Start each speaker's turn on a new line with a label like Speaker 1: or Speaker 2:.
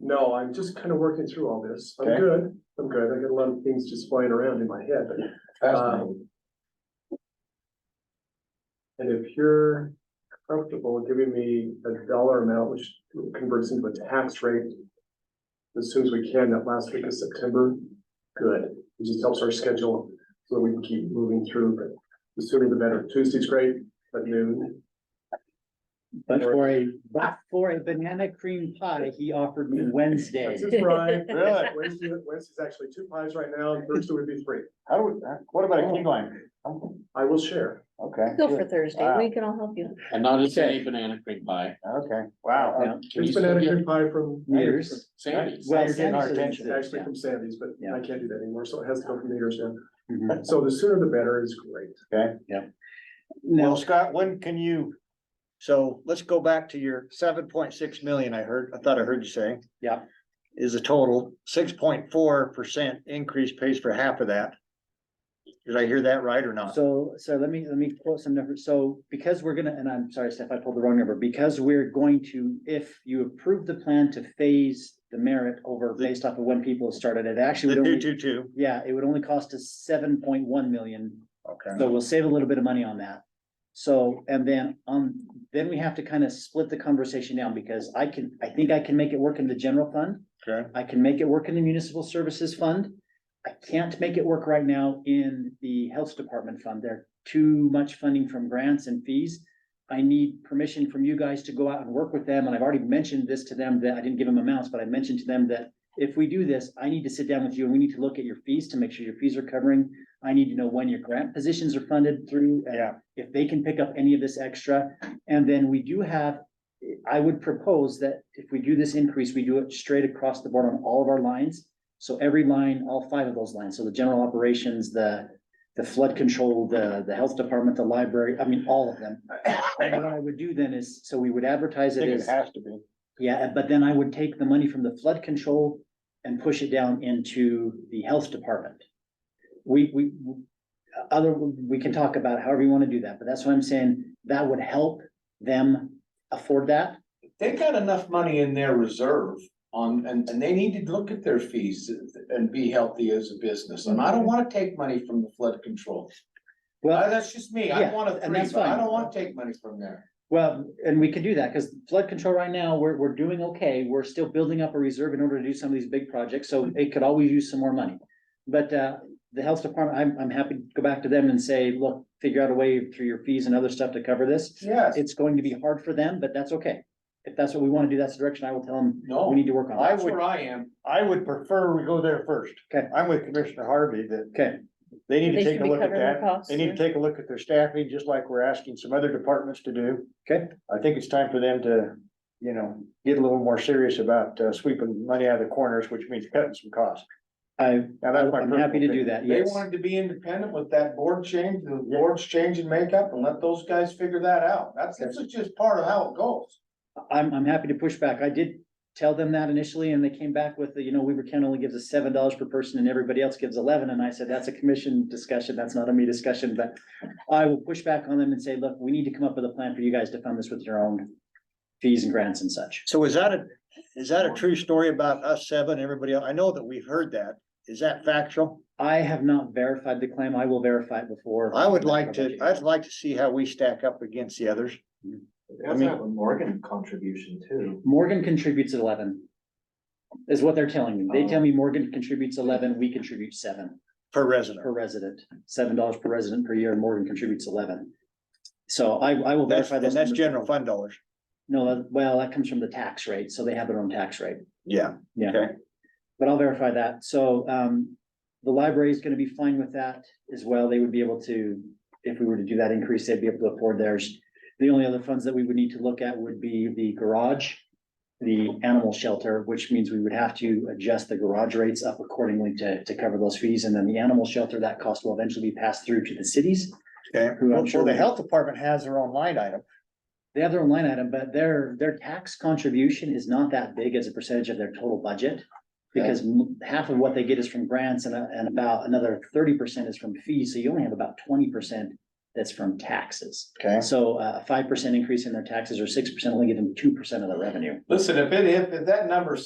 Speaker 1: No, I'm just kind of working through all this. I'm
Speaker 2: Okay.
Speaker 1: good. I'm good. I got a lot of things just flying around in my head, but
Speaker 2: Fascinating.
Speaker 1: And if you're comfortable giving me a dollar amount, which converts into a tax rate as soon as we can, that last week of September, good. It just helps our schedule so that we can keep moving through, but the sooner the better. Tuesday's great, at noon.
Speaker 3: But for a, but for a banana cream pie, he offered me Wednesday.
Speaker 1: That's his right.
Speaker 2: Really?
Speaker 1: Wednesday, Wednesday's actually two pies right now, and Thursday would be three.
Speaker 2: How do, we- uh, what about a key line?
Speaker 1: I will share.
Speaker 2: Okay.
Speaker 4: Go for
Speaker 2: good.
Speaker 4: Thursday. We can all help you.
Speaker 5: And not just any banana cream pie.
Speaker 2: Okay, wow.
Speaker 3: Now,
Speaker 5: Can
Speaker 1: There's
Speaker 5: you still
Speaker 1: banana
Speaker 5: get
Speaker 1: cream pie from.
Speaker 3: Years.
Speaker 5: Sandy's.
Speaker 3: Well,
Speaker 2: You're getting our
Speaker 3: Samson's
Speaker 2: attention.
Speaker 3: did,
Speaker 1: Actually
Speaker 3: yeah.
Speaker 1: from Sandy's, but
Speaker 3: Yeah.
Speaker 1: I can't do that anymore, so it has to go from Nader's now.
Speaker 2: Mhm.
Speaker 1: So the sooner the better is great.
Speaker 2: Well,
Speaker 3: Now,
Speaker 2: Scott, when can you, so let's go back to your seven point six million I heard, I thought I heard you say.
Speaker 3: Yeah.
Speaker 2: Is a total six point four percent increase pays for half of that. Did I hear that right or not?
Speaker 3: so, so let me, let me quote some numbers. So because we're gonna, and I'm sorry, Steph, I pulled the wrong number, because we're going to, if you approve the plan to phase the merit over based off of when people started, it
Speaker 2: The
Speaker 3: actually would
Speaker 2: two,
Speaker 3: only,
Speaker 2: two, two,
Speaker 3: yeah, it would only cost us seven point one million
Speaker 2: okay.
Speaker 3: So we'll save a little bit of money on that. So, and then, um, then we have to kind of split the conversation down because I can, I think I can make it work in the general fund.
Speaker 2: Okay.
Speaker 3: I can make it work in the municipal services fund. I can't make it work right now in the health department fund. There too much funding from grants and fees. I need permission from you guys to go out and work with them, and I've already mentioned this to them, that I didn't give them amounts, but I mentioned to them that if we do this, I need to sit down with you and we need to look at your fees to make sure your fees are covering. I need to know when your grant positions are funded through. and
Speaker 2: Yeah.
Speaker 3: If they can pick up any of this extra, and then we do have, I would propose that if we do this increase, we do it straight across the board on all of our lines. So every line, all five of those lines, so the general operations, the, the flood control, the, the health department, the library, I mean, all of them. And what I would do then is, so we would
Speaker 2: I
Speaker 3: advertise it
Speaker 2: think it
Speaker 3: as.
Speaker 2: has to be.
Speaker 3: Yeah, but then I would take the money from the flood control and push it down into the health department. We, we, other, we can talk about however you want to do that, but that's what I'm saying. That would help them afford that.
Speaker 6: They got enough money in their reserve on, and, and they need to look at their fees and be healthy as a business. And I don't wanna take money from the flood control. Uh,
Speaker 3: Well,
Speaker 6: That's just me. I
Speaker 3: Yeah,
Speaker 6: want a
Speaker 3: and
Speaker 6: three,
Speaker 3: that's
Speaker 6: but I
Speaker 3: fine.
Speaker 6: don't wanna take money from there.
Speaker 3: well, and we could do that because flood control right now, we're, we're doing okay. We're still building up a reserve in order to do some of these big projects, so it could always use some more money. But, uh, the health department, I'm, I'm happy to go back to them and say, look, figure out a way through your fees and other stuff to cover this.
Speaker 6: Yes,
Speaker 3: it's going to be hard for them, but that's okay. If that's what we want to do, that's the direction I will tell them, we
Speaker 6: no,
Speaker 3: need to work on.
Speaker 2: I
Speaker 3: that.
Speaker 6: that's
Speaker 2: would-
Speaker 6: where I am.
Speaker 2: I would prefer we go there first.
Speaker 3: Okay.
Speaker 2: I'm with Commissioner Harvey that
Speaker 3: Okay,
Speaker 2: they need to
Speaker 4: They
Speaker 2: take
Speaker 4: should
Speaker 2: a
Speaker 4: be
Speaker 2: look at
Speaker 4: covering
Speaker 2: that.
Speaker 4: their costs.
Speaker 2: They need to take a look at their staffing, just like we're asking some other departments to do.
Speaker 3: okay,
Speaker 2: I think it's time for them to, you know, get a little more serious about uh, sweeping money out of the corners, which means cutting some costs.
Speaker 3: I,
Speaker 2: Now, that's my
Speaker 3: I'm happy to do that,
Speaker 6: They
Speaker 3: yes.
Speaker 6: wanted to be independent with that board change, the board's change in makeup and let those guys figure that out. That's, this is just part of how it goes.
Speaker 3: I'm, I'm happy to push back. I did tell them that initially and they came back with, the, you know, Weaver County only gives us seven dollars per person and everybody else gives eleven. And I said, that's a commission discussion. That's not a me discussion, but I will push back on them and say, look, we need to come up with a plan for you guys to fund this with your own fees and grants and such.
Speaker 2: So is that a, is that a true story about us seven, everybody else? I know that we've heard that. Is that factual?
Speaker 3: I have not verified the claim. I will verify it before.
Speaker 2: I would like to, I'd like to see how we stack up against the others. I mean-
Speaker 6: Morgan contribution too.
Speaker 3: Morgan contributes eleven. Is what they're telling me. They tell
Speaker 2: Oh.
Speaker 3: me Morgan contributes eleven, we contribute seven
Speaker 2: Per resident.
Speaker 3: per resident, seven dollars per resident per year, and Morgan contributes eleven. So I, I will
Speaker 2: That's,
Speaker 3: verify
Speaker 2: and
Speaker 3: those.
Speaker 2: that's
Speaker 3: numbers.
Speaker 2: general fund dollars.
Speaker 3: No, that- well, that comes from the tax rate, so they have their own tax rate.
Speaker 2: Yeah.
Speaker 3: Yeah.
Speaker 2: Okay.
Speaker 3: But I'll verify that. So, um, the library is gonna be fine with that as well. They would be able to, if we were to do that increase, they'd be able to afford theirs. The only other funds that we would need to look at would be the garage, the animal shelter, which means we would have to adjust the garage rates up accordingly to, to cover those fees. And then the animal shelter, that cost will eventually be passed through to the cities.
Speaker 2: Okay.
Speaker 3: Who I'm
Speaker 2: Well,
Speaker 3: sure
Speaker 2: the
Speaker 3: we-
Speaker 2: health department has their own line item.
Speaker 3: They have their own line item, but their, their tax contribution is not that big as a percentage of their total budget. Because m- half of what they get is from grants and, a- and about another thirty percent is from fees, so you only have about twenty percent that's from taxes.
Speaker 2: Okay.
Speaker 3: So uh, a five percent increase in their taxes or six percent only give them two percent of the revenue.
Speaker 6: Listen, if it, if if that number's